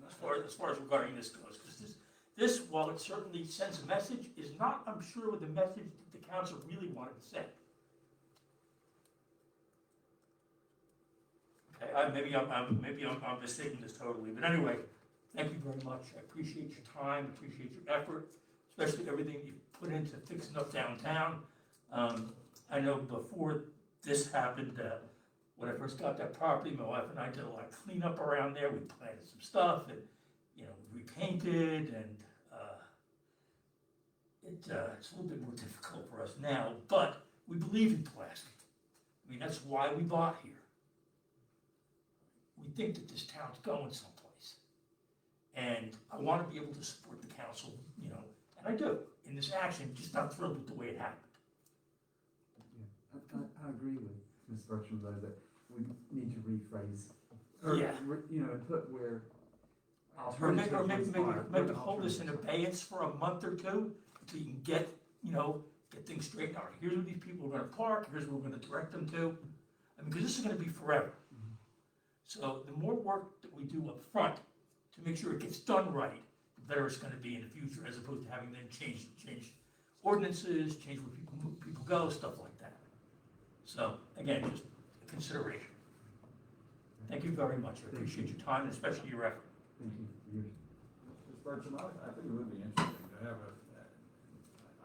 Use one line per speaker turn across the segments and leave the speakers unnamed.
concerned as far as regarding this goes, because this, this, while it certainly sends a message, is not, I'm sure, what the message that the council really wanted to send. Okay, I, maybe I'm, I'm, maybe I'm, I'm mistaken this totally, but anyway, thank you very much, I appreciate your time, appreciate your effort, especially everything you put into fixing up downtown. Um, I know before this happened, uh, when I first got that property, my wife and I did a lot of cleanup around there, we planted some stuff and, you know, repainted and, uh, it, uh, it's a little bit more difficult for us now, but we believe in plastic. I mean, that's why we bought here. We think that this town's going someplace. And I wanna be able to support the council, you know, and I do, in this action, just not thrilled with the way it happened.
I, I, I agree with Ms. Bertram though, that we need to rephrase. or,
Yeah.
re- You know, put where.
Or make, or make,
alternatives are,
make,
put
make the hold this in
alternatives.
abeyance for a month or two, until you can get, you know, get things straightened out. Here's where these people are gonna park, here's where we're gonna direct them to, I mean, cause this is gonna be forever. So the more work that we do up front to make sure it gets done right, the better it's gonna be in the future, as opposed to having them change, change ordinances, change where people move, people go, stuff like that. So, again, just a consideration. Thank you very much, I appreciate your time, and especially your effort.
Thank you for yours.
Mr. Bertram, I, I think it would be interesting to have a,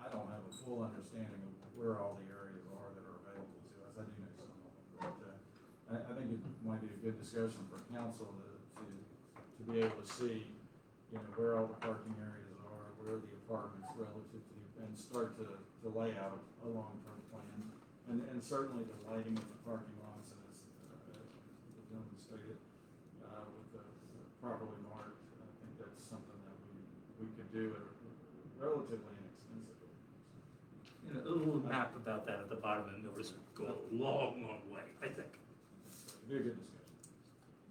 I don't have a full understanding of where all the areas are that are available to us, I do know some of them, but, uh, I, I think it might be a good discussion for council to, to, to be able to see, you know, where all the parking areas are, where the apartments relative to, the- and start to, to lay out a long-term plan. And, and certainly the lighting of the parking lots, as, uh, the gentleman stated, uh, with the the properly marked. I think that's something that we, we could do at relatively inexpensive.
And a little map about that at the bottom of the notice would go a long, long way, I think.
So it'd Be a good discussion.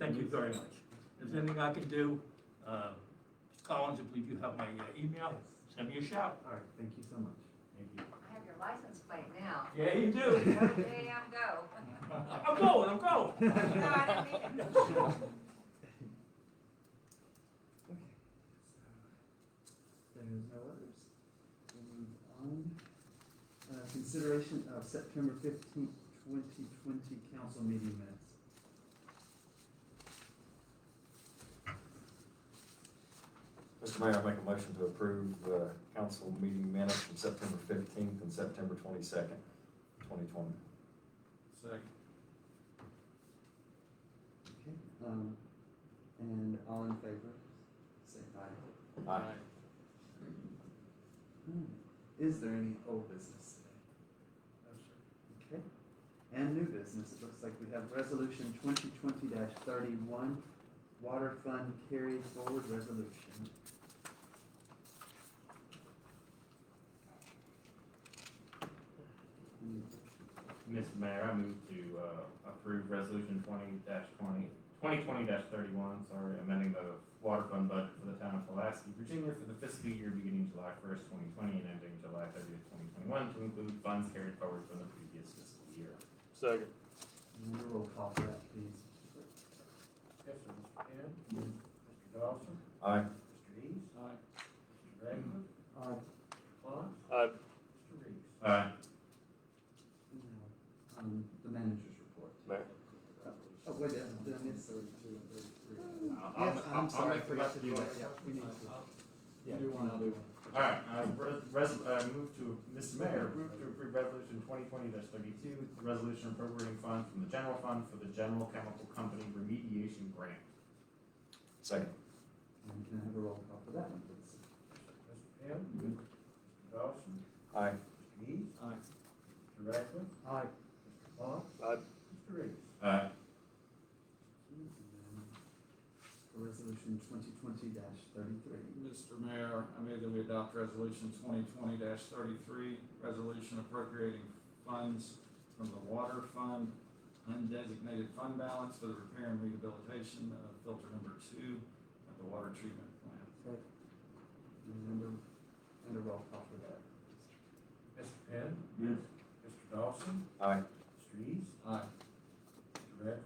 Thank you very much. If there's anything I can do, uh, Mr. Collins, I believe you have my uh, email, send me a shout.
All right, thank you so much. Thank you.
I have your license plate now.
Yeah, you do.
Okay, I'm go.
I'm going, I'm going.
No, I didn't mean it.
There's no others. We'll move on. Uh, consideration of September fifteenth, twenty twenty council meeting minutes.
Mr. Mayor, I make a motion to approve the council meeting minutes from September fifteenth and September twenty-second, twenty twenty.
Second.
Okay, um, and all in favor, say aye.
Aye.
Hmm, Is there any old business today? Okay. And new business, it looks like we have resolution twenty twenty thirty-one, water fund carry forward resolution. Hmm,
Mr. Mayor, I move to uh, approve resolution twenty 20 2020 thirty-one, sorry, amending the water fund budget for the town of Pulaski, Virginia for the fiscal year beginning July first, twenty twenty, and ending July thirtieth, twenty twenty-one, to include funds carried forward from the previous fiscal year.
Second.
and a Roll call for that, please.
Yes, sir, Mr. Penn? Mr. Dawson?
Aye.
Mr. East? Aye. Mr. Raymond?
Aye.
Mr. Claus?
Aye.
Mr. Reeves?
Aye.
Now, Um, the manager's report.
Mayor.
Oh, wait, did I- did I miss?
I'll- I'll-
Yes,
I'll- I'll
I'm sorry, I
make the
forgot to
rest
do
of
that,
it.
yeah, we need to.
You do one, I'll do one.
All right, uh, res- res- uh, move to, Mr. Mayor, move to approve resolution twenty twenty thirty-two, resolution appropriating funds from the general fund for the general chemical company remediation grant.
Second.
And can I have a roll call for that one, please?
Mr. Penn? Mr. Dawson?
Aye.
Mr. East? Aye. Mr. Raymond?
Aye.
Mr. Claus?
Aye.
Mr. Reeves?
Aye.
And then for Mm-hmm. Resolution twenty twenty thirty-three.
Mr. Mayor, I move that we adopt resolution twenty twenty thirty-three, resolution appropriating funds from the water fund, undesignated fund balance for the repair and rehabilitation of filter number two at the water treatment plant.
And a, and a roll call for that.
Mr. Penn?
Yes.
Mr. Dawson?
Aye.
Mr. East? Aye. Mr. Radford?